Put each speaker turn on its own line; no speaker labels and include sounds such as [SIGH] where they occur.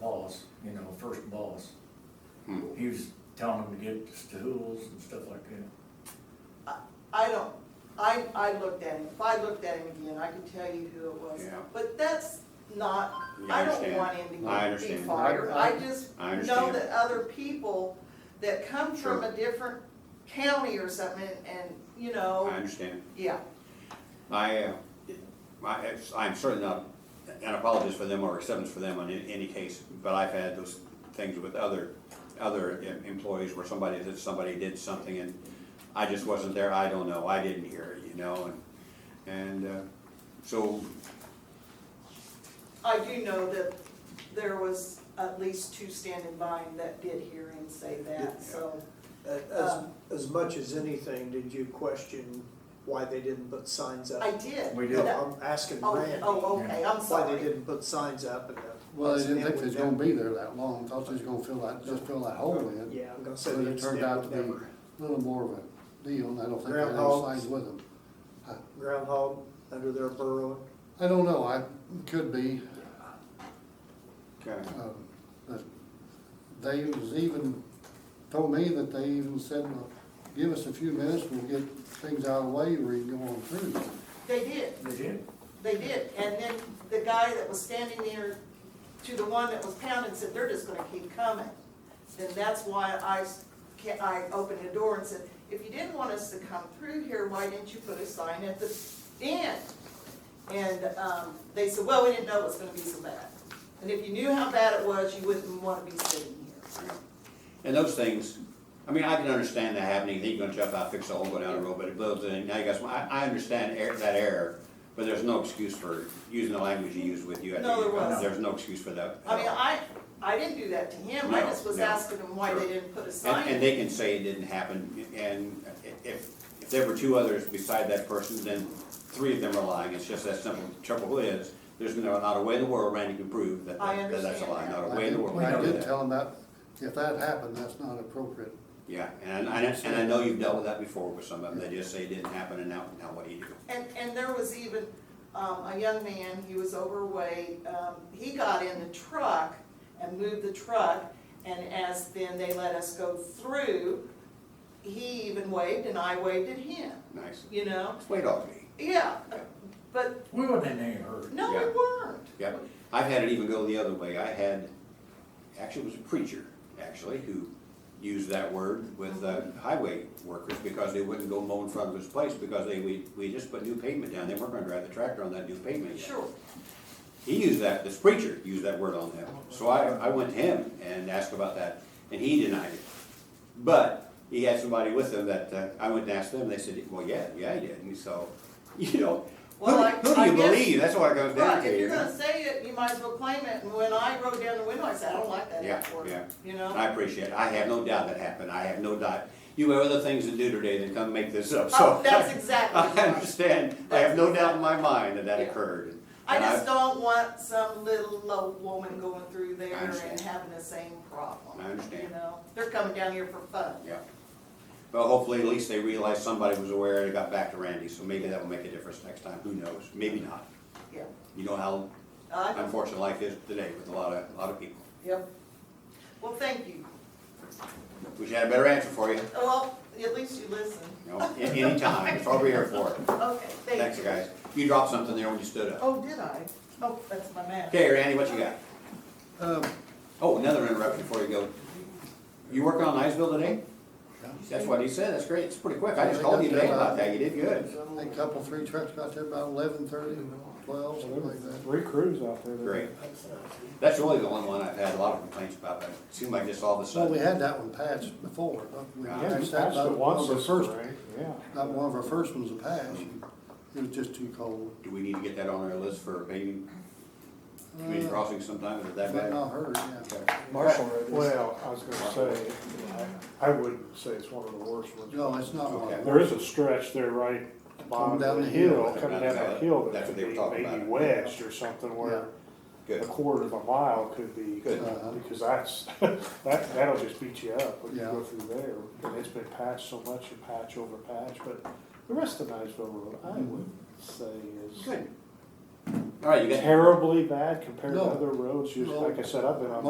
boss, you know, first boss.
Hmm.
He was telling him to get stools and stuff like that.
I don't, I, I looked at him, if I looked at him again, I could tell you who it was.
Yeah.
But that's not,
You
I don't
understand.
want him
I
to get, be
understand.
fired,
I- I-
I just
I
know
understand.
that other people that come from
Sure.
a different county or something, and- and, you
I
know,
understand.
yeah,
I, uh, I, it's- I'm certainly not an apologist for them or acceptance for them on any, any case, but I've had those things with other, other em- employees where somebody, that somebody did something and I just wasn't there, I don't know, I didn't hear it, you know, and, and, uh, so,
I do know that there was at least two standing by him that did hear him say
Yeah.
that, so.
As,
Um,
as much as anything, did you question why they didn't put signs up?
I did.
We did.
No,
That-
I'm asking
Oh,
Randy,
oh, okay, I'm
why they
sorry.
didn't put signs up and. uh,
Well, they didn't
it
think they was
would
gonna
never-
be there that long, thought they was gonna fill that, just fill that hole in.
Yeah, I'm gonna say
So
the
it turned out
incident
to
would
be
never.
a little more of a deal, and I don't think they had any
Groundhog.
signs with them.
Groundhog under their burrow.
I don't know, I, could be,
okay.
um, but they was even, told me that they even said, well, give us a few minutes, we'll get things out of the way, we can go on through.
They did.
They did.
They did, and then the guy that was standing there to the one that was pounding said, they're just gonna keep coming. Then that's why I, s- ca- I opened the door and said, if you didn't want us to come through here, why didn't you put a sign at the end? And, um, they said, well, we didn't know it was gonna be so bad. And if you knew how bad it was, you wouldn't wanna be sitting here.
And those things, I mean, I can understand that happening, he's gonna jump out, fix the hole, go down the road, but it blows in, now you got some, I, I understand er- that error, but there's no excuse for using the language you used with you. at the-
No, there wasn't.
There's no excuse for that.
I mean, I, I didn't do that to him, I
No,
just was
no.
asking him why they
Sure.
didn't put a
And, and
sign.
they can say it didn't happen, and if, if there were two others beside that person, then three of them are lying, it's just that simple. Trouble is, there's no- not a way in the world Randy can prove that,
I
that that's a
understand
lie,
that.
not a
I
way in the
did-
world.
I
can prove
did
that.
tell them that, if that happened, that's not appropriate.
Yeah, and, I- and, I- and I know you've dealt with that before with some of them, they just say it didn't happen, and now, now what do you do?
And, and there was even, um, a young man, he was overweight, um, he got in the truck and moved the truck, and as then they let us go through, he even waved and I waved at him,
Nice.
you know?
Wait on me.
Yeah, but,
We wasn't in any hurry.
no, we
Yeah.
weren't.
Yep. I've had it even go the other way. I had, actually, it was a preacher, actually, who used that word with uh, highway workers because they wouldn't go mow in front of his place because they, we, we just put new pavement down. They weren't gonna drive the tractor on that new pavement yet.
Sure,
He used that, this preacher used that word on them. So I, I went to him and asked about that, and he denied it. But he had somebody with him that, uh, I went and asked them, and they said, well, yeah, yeah, he did. And so, [LAUGHS] you know, who,
Well, I-
who do
I
you
guess-
believe? That's what it comes down
right,
to.
if
you
you're
know?
gonna say it, you might as well claim it, and when I rode down the window, I said, I don't like that
Yeah, yeah.
word, you know?
I appreciate it. I have no doubt that happened. I have no doubt. You have other things to do today than come make this up, so. [LAUGHS]
Oh, that's exactly
I
right.
understand. I have no doubt in my mind that that
Yeah.
occurred.
I
And
just don't want some little old woman going through there
I
and
understand.
having the same problem.
I understand.
You know, they're coming down here for fun.
Yeah. Well, hopefully at least they realized somebody was aware and it got back to Randy, so maybe that will make a difference next time. Who knows? Maybe not.
Yeah.
You know how
I don't-
unfortunate life is today with a lot of, a lot of people.
Yep. Well, thank you.
Wish I had a better answer for you,
Well, at least you listened.
you know, a- anytime. That's what we're here for.
Okay, thank you.
Thanks, guys. You dropped something there when you stood up.
Oh, did I? Oh, that's my man.
Okay, Randy, what you got?
Um,
Oh, another interruption before you go. You working on Niceville today? That's what he said, that's great, it's pretty quick, I just called you today about that, you did good.
I think a couple, three trucks got there about eleven thirty, twelve, something like that.
Three crews out there.
Great. That's really the only one I've had a lot of complaints about, but it seemed like just all of a
So we
sudden.
had that one patched before. huh? We
Yeah,
Yeah,
patched
you
that
patched
about
it once
one of our
this
first-
spring, yeah.
About one of our first ones to patch. It was just too cold.
Do we need to get that on our list for maybe community
Uh,
crossing sometime, is it that
But
bad?
not hurt, yeah.
Okay.
Well, I was gonna say, I I wouldn't say it's one of the worst ones.
No, it's not
Okay.
one.
There is a stretch there right bottom
down
of
the
the
hill.
hill, coming down that hill, that
That's what
could
they were
be
talking
maybe
about.
west or something
Yeah.
where a
Good,
quarter of a mile could be,
Good.
Uh-huh.
because that's, [LAUGHS] that, that'll just beat you up when you
Yeah.
go through there. And it's been patched so much, you patch over patch, but the rest of Niceville Road, I would
Mm-hmm.
say is.
good. All right, you got.
terribly bad compared to
No.
other roads, just
No.
like I said, I've been on